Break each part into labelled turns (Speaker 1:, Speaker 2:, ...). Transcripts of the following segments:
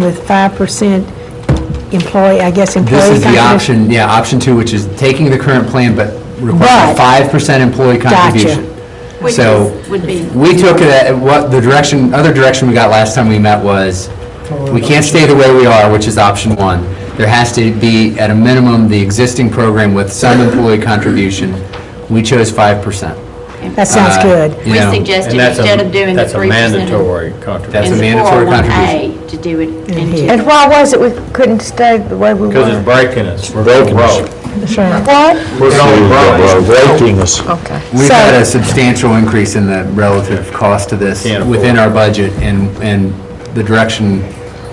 Speaker 1: with 5% employee, I guess employee
Speaker 2: This is the
Speaker 1: contribution.
Speaker 2: option, yeah, option two, which is taking the current plan but requesting
Speaker 1: But-
Speaker 2: five percent employee contribution.
Speaker 3: Which
Speaker 2: So,
Speaker 3: is- would be-
Speaker 2: we took it at, what, the direction, other direction we got last time we met was, we can't stay the way we are, which is option one. There has to be, at a minimum, the existing program with some employee contribution. We chose five percent.
Speaker 1: That sounds good.
Speaker 2: you
Speaker 3: We
Speaker 2: know,
Speaker 3: suggested
Speaker 4: And that's a-
Speaker 3: instead of doing the
Speaker 4: That's a
Speaker 3: three percent.
Speaker 4: mandatory contribution.
Speaker 2: That's a mandatory
Speaker 3: In the 401A, to do it
Speaker 1: In
Speaker 3: in
Speaker 1: here.
Speaker 3: two.
Speaker 5: And why was it we couldn't stay the way we
Speaker 4: Because
Speaker 5: were?
Speaker 4: it's breaking us. We're broke.
Speaker 1: That's right.
Speaker 5: What?
Speaker 4: We're going broke.
Speaker 6: breaking us.
Speaker 5: Okay.
Speaker 2: We've
Speaker 5: So-
Speaker 2: had a substantial increase in the relative cost to this
Speaker 4: Can't afford
Speaker 2: within
Speaker 4: it.
Speaker 2: our budget, and, and the direction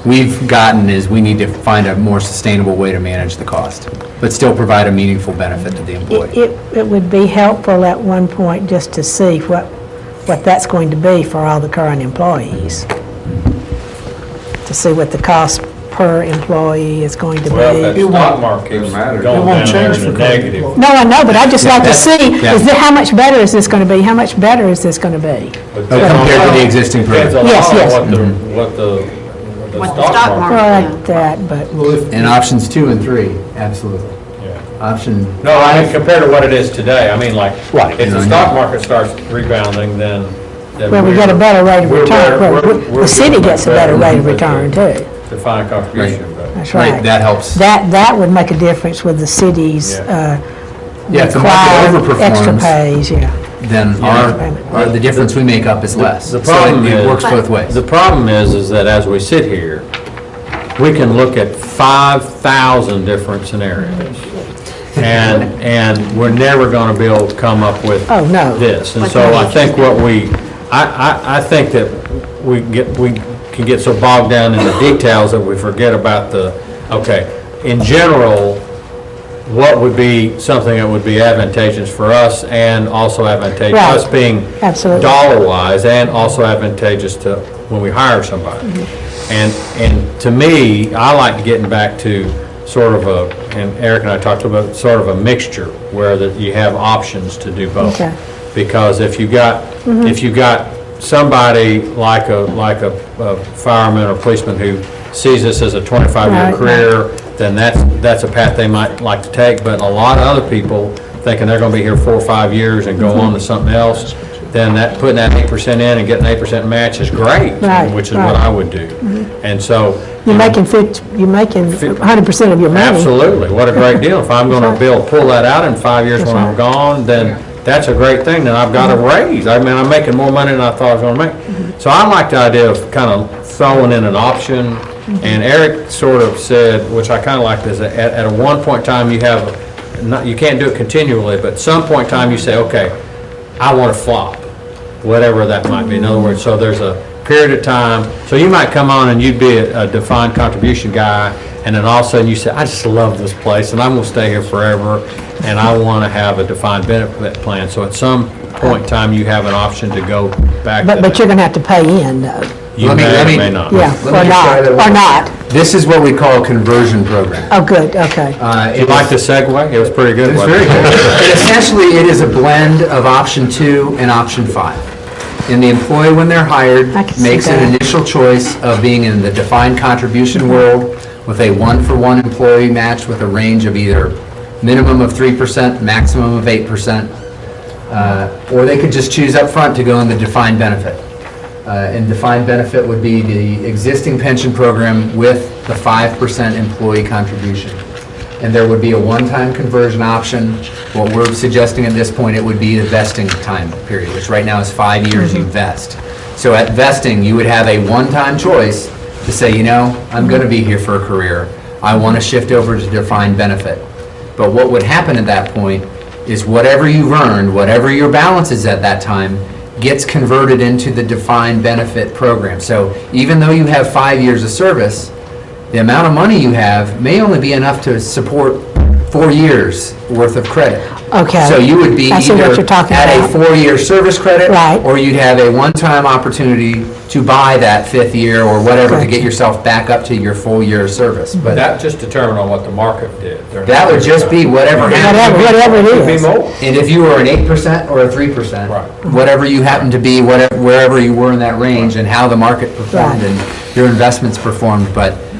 Speaker 2: we've gotten is we need to find a more sustainable way to manage the cost, but still provide a meaningful benefit to the
Speaker 1: It-
Speaker 2: employee.
Speaker 1: It, it would be helpful at one point just to see what, what that's going to be for all the current employees. To see what the cost per employee is going to
Speaker 4: Well, that
Speaker 1: be.
Speaker 4: stock market's going down there in the negative.
Speaker 1: No, I know, but I'd just like to see,
Speaker 2: yeah.
Speaker 1: is that, how much better is this going to be? How much better is this going to be?
Speaker 4: But
Speaker 2: Oh, Compared to the existing
Speaker 4: Depends
Speaker 2: program.
Speaker 4: a
Speaker 1: Yes,
Speaker 4: lot on
Speaker 1: yes.
Speaker 4: what the, what the, what the
Speaker 3: What the
Speaker 4: stock
Speaker 3: stock
Speaker 4: market.
Speaker 1: Well,
Speaker 3: yeah.
Speaker 1: like that, but,
Speaker 2: And options two and three, absolutely. Option,
Speaker 4: No, I mean, compared to what it is today, I mean, like,
Speaker 2: Right.
Speaker 4: if the stock market starts rebounding, then. then
Speaker 1: well, we get a better rate of
Speaker 4: we're
Speaker 1: return.
Speaker 4: better-
Speaker 1: Well,
Speaker 4: we're-
Speaker 1: we-
Speaker 4: we're
Speaker 1: The city
Speaker 4: doing
Speaker 1: gets a better rate of
Speaker 4: than
Speaker 1: return, too.
Speaker 4: the Defined contribution, but.
Speaker 1: That's
Speaker 2: right,
Speaker 1: right.
Speaker 2: that helps.
Speaker 1: That, that would make a difference with the city's
Speaker 4: Yeah.
Speaker 1: uh,
Speaker 2: Yeah, if the
Speaker 1: required
Speaker 2: market
Speaker 1: extra
Speaker 2: overperforms,
Speaker 1: pays, yeah.
Speaker 2: then our, our- the difference we make up is less.
Speaker 4: The
Speaker 2: So it-
Speaker 4: problem is.
Speaker 2: It works both ways.
Speaker 4: The problem is, is that as we sit here, we can look at 5,000 different scenarios. And, and we're never going to be able to come up with.
Speaker 1: Oh, no.
Speaker 4: This. And so I think what we, I, I, I think that we get, we can get so bogged down in the details that we forget about the, okay, in general, what would be something that would be advantageous for us and also advantageous,
Speaker 1: Right.
Speaker 4: us being
Speaker 1: Absolutely.
Speaker 4: dollar-wise and also advantageous to when we hire somebody. And, and to me, I like getting back to sort of a, and Eric and I talked about, sort of a mixture where that you have options to do both.
Speaker 1: Okay.
Speaker 4: Because if you got, if you got somebody like a, like a a fireman or policeman who sees this as a 25-year
Speaker 1: Right.
Speaker 4: career, then that's, that's a path they might like to take. But a lot of other people thinking they're going to be here four or five years and go on
Speaker 1: Mm-hmm.
Speaker 4: to something else, then that, putting that 8% in and getting 8% match is great,
Speaker 1: Right,
Speaker 4: which is what
Speaker 1: right. Mm-hmm.
Speaker 4: I would do. And so. you
Speaker 1: You're
Speaker 4: know,
Speaker 1: making, fif- you're making 100% of your money.
Speaker 4: Absolutely, what a great deal. If I'm gonna be able to pull that out in five years when I'm gone, then that's a great thing, then I've
Speaker 1: Mm-hmm.
Speaker 4: got a raise. I mean, I'm making more money than I thought I was gonna make. So I like the idea of kind of throwing in an option,
Speaker 1: Mm-hmm.
Speaker 4: and Eric sort of said, which I kind of like this, at, at a one point in time, you have, not, you can't do it continually, but some point in time, you say, okay, I want to flop whatever that might be. In other words, so there's a period of time, so you might come on and you'd be a a defined contribution guy, and then all of a sudden you say, I just love this place, and I'm gonna stay here forever, and I wanna have a defined benefit plan. So at some point in time, you have an option to go back to
Speaker 1: But, but you're
Speaker 4: that.
Speaker 1: going to have to pay in, though.
Speaker 4: You
Speaker 2: Let me-
Speaker 4: may
Speaker 2: let
Speaker 4: or
Speaker 2: me-
Speaker 4: may not.
Speaker 1: Yeah, or
Speaker 2: Let me try
Speaker 1: not,
Speaker 2: that
Speaker 1: or
Speaker 2: one.
Speaker 1: not.
Speaker 2: This is what we call a conversion program.
Speaker 1: Oh, good, okay.
Speaker 2: Uh,
Speaker 4: You
Speaker 2: it
Speaker 4: like the segue? It was pretty good.
Speaker 2: It's
Speaker 4: wasn't
Speaker 2: very
Speaker 4: it?
Speaker 2: good. And Essentially, it is a blend of option two and option five. And the employee, when they're hired,
Speaker 1: I can see
Speaker 2: makes an
Speaker 1: that.
Speaker 2: initial choice of being in the defined contribution world with a one-for-one employee match with a range of either minimum of 3%, maximum of 8%. uh, Or they could just choose up front to go in the defined benefit. Uh, And defined benefit would be the existing pension program with the 5% employee contribution and there would be a one-time conversion option. What we're suggesting at this point, it would be a vesting time period, which right now is five years you vest. So at vesting, you would have a one-time choice to say, you know, I'm going to be here for a career. I want to shift over to defined benefit. But what would happen at that point is whatever you've earned, whatever your balance is at that time, gets converted into the defined benefit program. So even though you have five years of service, the amount of money you have may only be enough to support four years worth of credit.
Speaker 1: Okay.
Speaker 2: So you would be
Speaker 1: I see what
Speaker 2: either
Speaker 1: you're talking
Speaker 2: at a
Speaker 1: about.
Speaker 2: four-year service credit.
Speaker 1: Right.
Speaker 2: Or you'd have a one-time opportunity to buy that fifth year or whatever to
Speaker 1: Gotcha.
Speaker 2: get yourself back up to your full year of service. But
Speaker 4: That just determined on what the market did. They're not-
Speaker 2: that would just be whatever
Speaker 1: Whatever,
Speaker 2: happened.
Speaker 1: whatever it
Speaker 4: Could be
Speaker 1: is.
Speaker 4: more.
Speaker 2: And if you were an eight percent or a three percent.
Speaker 4: Right.
Speaker 2: Whatever you happen to be, whatever, wherever you were in that range and how the market performed
Speaker 1: Right.
Speaker 2: and your investments performed, but